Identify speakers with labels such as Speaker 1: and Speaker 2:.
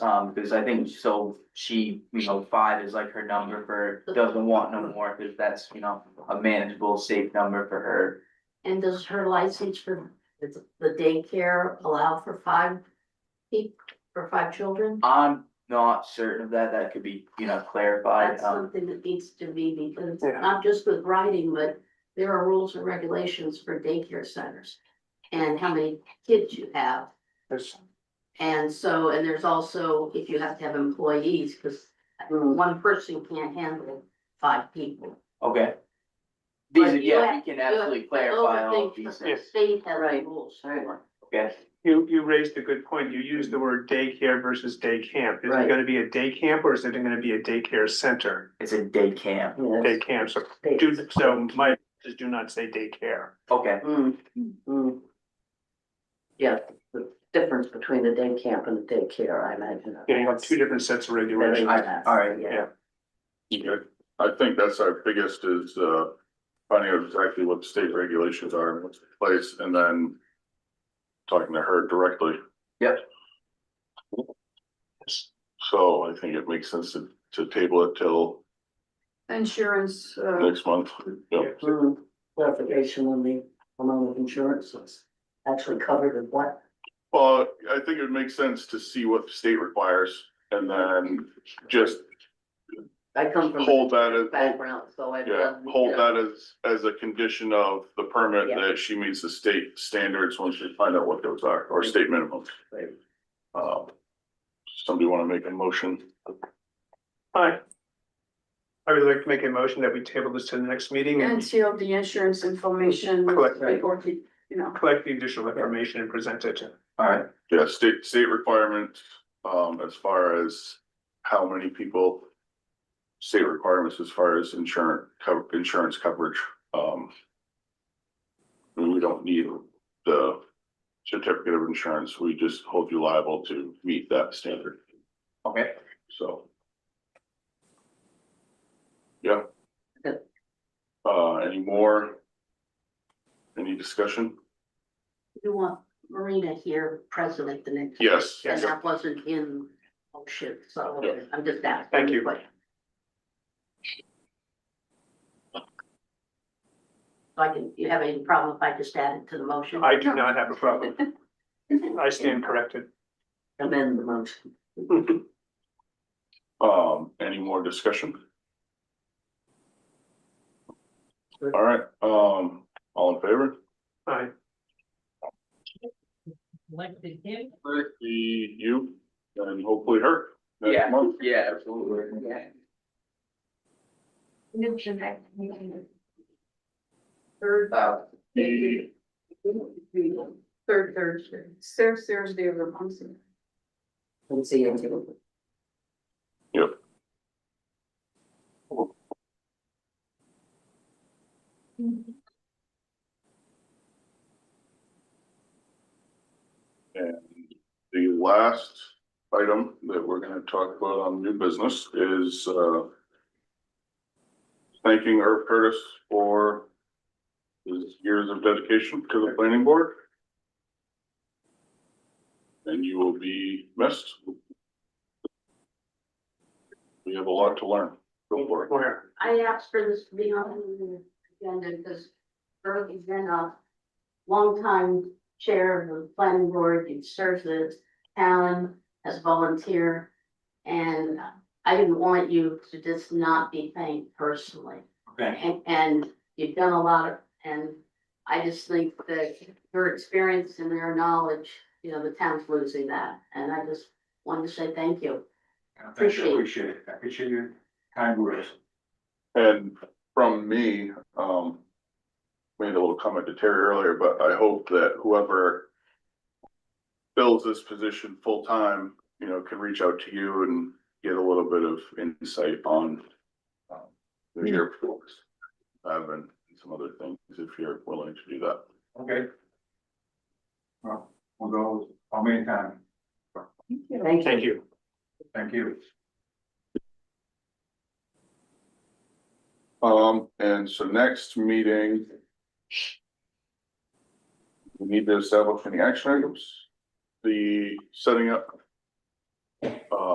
Speaker 1: Um, because I think so she, you know, five is like her number for, doesn't want no more, because that's, you know, a manageable, safe number for her.
Speaker 2: And does her license for the the daycare allow for five people, for five children?
Speaker 1: I'm not certain of that, that could be, you know, clarified,
Speaker 2: That's
Speaker 1: um,
Speaker 2: something that needs to be, because it's
Speaker 3: Yeah.
Speaker 2: not just with writing, but there are rules and regulations for daycare centers. And how many kids you have,
Speaker 3: There's,
Speaker 2: and so, and there's also if you have to have employees, because one person can't handle five people.
Speaker 1: okay. These,
Speaker 2: But
Speaker 1: are-
Speaker 2: you
Speaker 1: yeah, we
Speaker 2: have-
Speaker 1: can absolutely
Speaker 2: Those
Speaker 1: clarify
Speaker 2: are
Speaker 1: all of
Speaker 2: things
Speaker 1: these
Speaker 2: that
Speaker 1: things,
Speaker 2: The state has rules for.
Speaker 1: okay?
Speaker 3: you, you raised a good point. You used the word daycare versus day camp. Is
Speaker 2: Right.
Speaker 3: it gonna be a day camp or is it gonna be a daycare center?
Speaker 1: It's a day camp,
Speaker 3: Day camp, so do, so my, just do not say daycare.
Speaker 1: okay,
Speaker 4: Mm, mm. Yeah, the difference between the day camp and the daycare, I imagine.
Speaker 3: Yeah, you have two different sets of regulations.
Speaker 1: I- all right,
Speaker 4: Yeah.
Speaker 5: Yeah, I think that's our biggest is, uh, finding out exactly what the state regulations are and what's in place, and then talking to her directly.
Speaker 1: Yep.
Speaker 5: So I think it makes sense to, to table it till
Speaker 6: Insurance, uh,
Speaker 5: next month. Yep.
Speaker 4: Mm, Clarification on the, amount of insurance is actually covered in what?
Speaker 5: Well, I think it would make sense to see what the state requires and then just
Speaker 4: I come from. a
Speaker 5: hold that as, hold
Speaker 4: Background, so I've
Speaker 5: Yeah,
Speaker 4: done.
Speaker 5: hold that as, as a condition of the permit
Speaker 4: Yeah.
Speaker 5: that she meets the state standards once we find out what those are, or state minimums.
Speaker 4: Right.
Speaker 5: Uh, Somebody wanna make a motion?
Speaker 3: Hi. I would like to make a motion that we table this to the next meeting
Speaker 6: and
Speaker 3: and
Speaker 6: seal the insurance information.
Speaker 3: Correct.
Speaker 6: Or, the- you know,
Speaker 3: collect the additional information and present it.
Speaker 1: all right,
Speaker 5: Yeah, state, state requirements, um, as far as how many people. State requirements as far as insurance, co- insurance coverage, um. and We don't need the certificate of insurance, we just hold you liable to meet that standard,
Speaker 1: okay,
Speaker 5: so. Yeah. Uh, any more? Any discussion?
Speaker 2: You want Marina here, president, the next.
Speaker 5: Yes.
Speaker 2: And that wasn't in motion, so
Speaker 5: Yeah.
Speaker 2: I'm just asking.
Speaker 3: Thank you.
Speaker 2: but- So I can, you have any problem if I just add it to the motion?
Speaker 3: I do not have a problem. I stand corrected.
Speaker 4: Amend the motion.
Speaker 5: Um, any more discussion? All right, um, all in favor?
Speaker 3: I,
Speaker 5: See you and hopefully her
Speaker 1: Yeah.
Speaker 5: next month.
Speaker 1: yeah, absolutely, yeah.
Speaker 6: third,
Speaker 1: Uh,
Speaker 5: The-
Speaker 6: third Thursday, third Thursday of the month.
Speaker 4: Let's see. anything.
Speaker 5: The last item that we're gonna talk about on new business is, uh, thanking Irv Curtis for his years of dedication to the planning board. And you will be missed. We have a lot to learn. Go for it.
Speaker 3: where?
Speaker 2: I asked for this to be on the agenda because Earl has been a longtime chair of the planning board, he serves the town as volunteer. And I didn't want you to just not be thanked personally.
Speaker 1: okay,
Speaker 2: And, and you've done a lot of, and I just think that your experience and your knowledge, you know, the town's losing that. And I just wanted to say thank you. Appreciate it.
Speaker 7: Appreciate it. I appreciate your kind words.
Speaker 5: And from me, um, made a little comment to Terry earlier, but I hope that whoever fills this position full-time, you know, can reach out to you and get a little bit of insight on um, the airports, have and some other things, if you're willing to do that.
Speaker 7: Okay. Well, we'll go how many times?
Speaker 4: Thank you.
Speaker 3: Thank you.
Speaker 7: Thank you.
Speaker 5: Um, and so next meeting. We need to establish any action items, the setting up. uh,